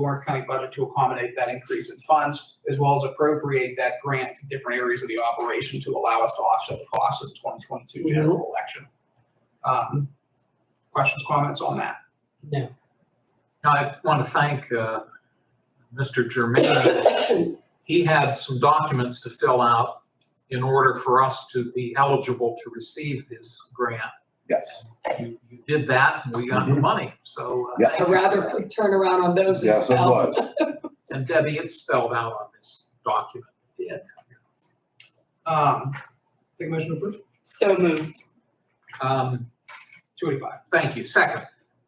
Lawrence County budget to accommodate that increase in funds, as well as appropriate that grant to different areas of the operation to allow us to offset the costs of the twenty twenty-two general election. Um, questions, comments on that? No. I want to thank uh, Mr. Germain. He had some documents to fill out in order for us to be eligible to receive this grant. Yes, You you did that, and we got the money, so. uh, Yeah. thank A you. rather quick turnaround on those as yes, it well. was. And Debbie, it's spelled out on this document. Yeah. Um, take a motion to approve, So moved. Um, two eighty-five. Thank you. Second,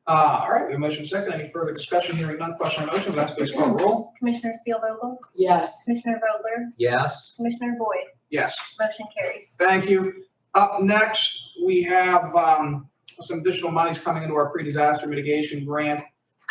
Uh, all right, we have a motion second, any further discussion, hearing none, question on motion, Vanessa please call the roll. Commissioner Spielvogel, Yes. Commissioner Vogler, yes, Commissioner Boyd, Yes. motion carries. Thank you. Up next, we have um, some additional monies coming into our pre-disaster mitigation grant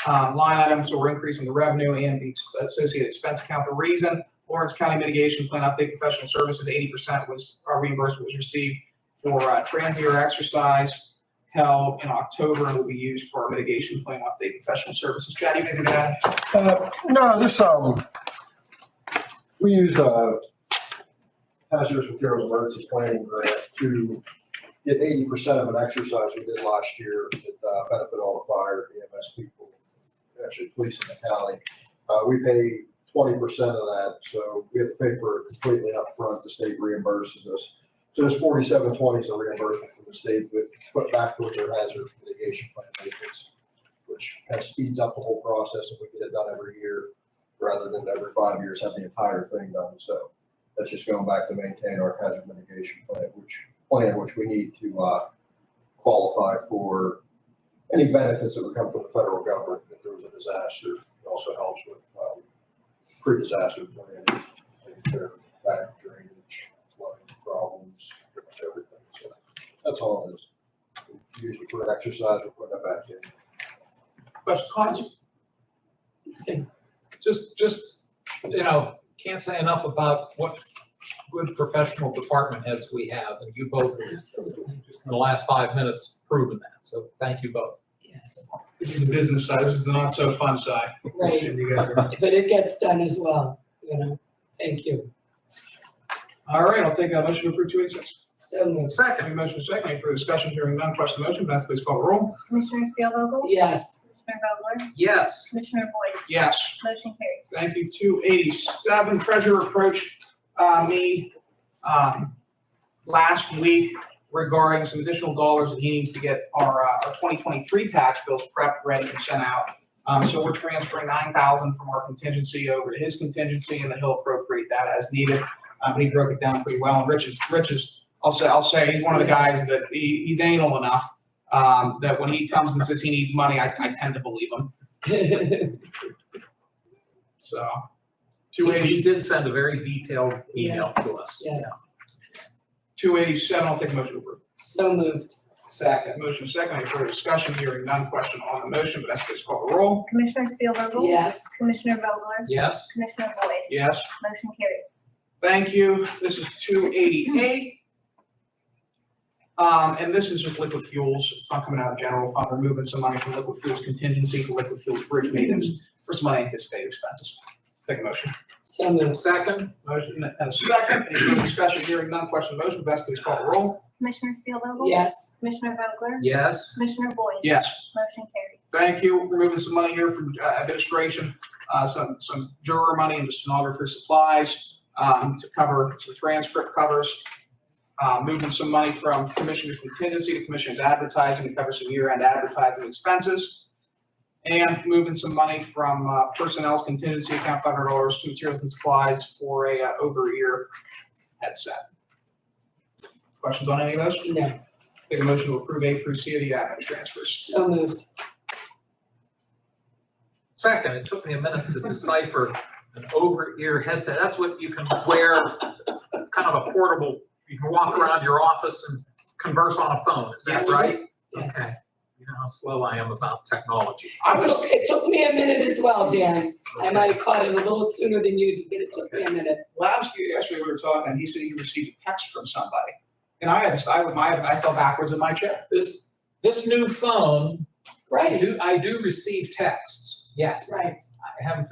um, line item, so we're increasing the revenue and the associated expense account. The reason, Lawrence County Mitigation Plan Update Professional Services, eighty percent was, our reimbursement was received for uh, transient exercise held in October and will be used for our mitigation plan update professional services. Chad, you can do that. Uh, No, this, um, we use uh hazardous materials emergency planning grant to get eighty percent of an exercise we did last year that uh, benefit all the fire, EMS people, actually police in the county. Uh, we pay twenty percent of that, so we have to pay for it completely upfront. The state reimburses us. So this forty-seven twenty is a reimbursement from the state with put back towards our hazard mitigation plan maintenance which kind of speeds up the whole process if we get it done every year rather than every five years have the entire thing done. So that's just going back to maintain our hazard mitigation plan, which plan, which we need to uh, qualify for any benefits that would come from the federal government if there was a disaster. It also helps with um, pre-disaster planning, taking care of back drainage, flooding problems, everything. So that's all it is. Usually for an exercise, we put that back in. Questions, comments? Nothing. just, just, you know, can't say enough about what good professional department heads we have, and you both are Absolutely. just in the last five minutes proven that, so thank you both. Yes. This is the business side, this is the not-so-fun side. Right. But it gets done as well, you know. Thank you. All right, I'll take a motion to approve two eighty-six. So moved. Second, we motion second, any further discussion, hearing none, question on the motion, Vanessa please call the roll. Commissioner Spielvogel, Yes. Commissioner Vogler, Yes, Commissioner Boyd, Yes. motion carries. Thank you, two eighty-seven, treasurer approached, uh, me, um, last week regarding some additional dollars that he needs to get our, uh, our twenty twenty-three tax bills prepped, ready, and sent out. Um, so we're transferring nine thousand from our contingency over to his contingency, and then he'll appropriate that as needed. Um, he broke it down pretty well, and Rich is, Rich is, I'll say, I'll say, he's one of the guys that, he, he's anal enough, um, that when he comes and says he needs money, I, I tend to believe him, so. Two eighty. you did send a very detailed email to us. Yes. Two eighty-seven, I'll take a motion to approve. So moved. Second. Motion second, any further discussion, hearing none, question on the motion, Vanessa please call the roll. Commissioner Spielvogel, Yes. Commissioner Vogler, Yes, Commissioner Boyd, Yes. motion carries. Thank you, this is two eighty-eight. Um, and this is just liquid fuels, it's not coming out of general fund, we're moving some money from liquid fuels contingency to liquid fuels bridge maintenance for some unanticipated expenses. Take a motion. So moved. second, Motion and a second, any further discussion, hearing none, question on the motion, Vanessa please call the roll. Commissioner Spielvogel, Yes. Commissioner Vogler, yes, Commissioner Boyd, Yes. motion carries. Thank you. We're moving some money here from uh, administration, uh, some, some juror money into stenographer supplies, um, to cover some transcript covers. Uh, moving some money from commissioner's contingency to commissioner's advertising to cover some year-end advertising expenses. And moving some money from, uh, personnel's contingency account, five hundred dollars to materials and supplies for a uh, over-ear headset. Questions on any of those? No. Take a motion to approve A through C of the admin transfers. So moved. second, it took me a minute to decipher an over-ear headset, that's what you can wear, kind of a portable, you can walk around your office and converse on a phone, is that Yes. right? Yes. Okay, you know how slow I am about technology. I It was took, it took me a minute as well, Dan. I might have caught it a little sooner than you did, but it took me a minute. last year, yesterday, we were talking, and he said he received a text from somebody. And I had, I, would- my, I fell backwards in my chair. This, this new phone, I Right. do, I do receive texts. Yes, Right. I haven't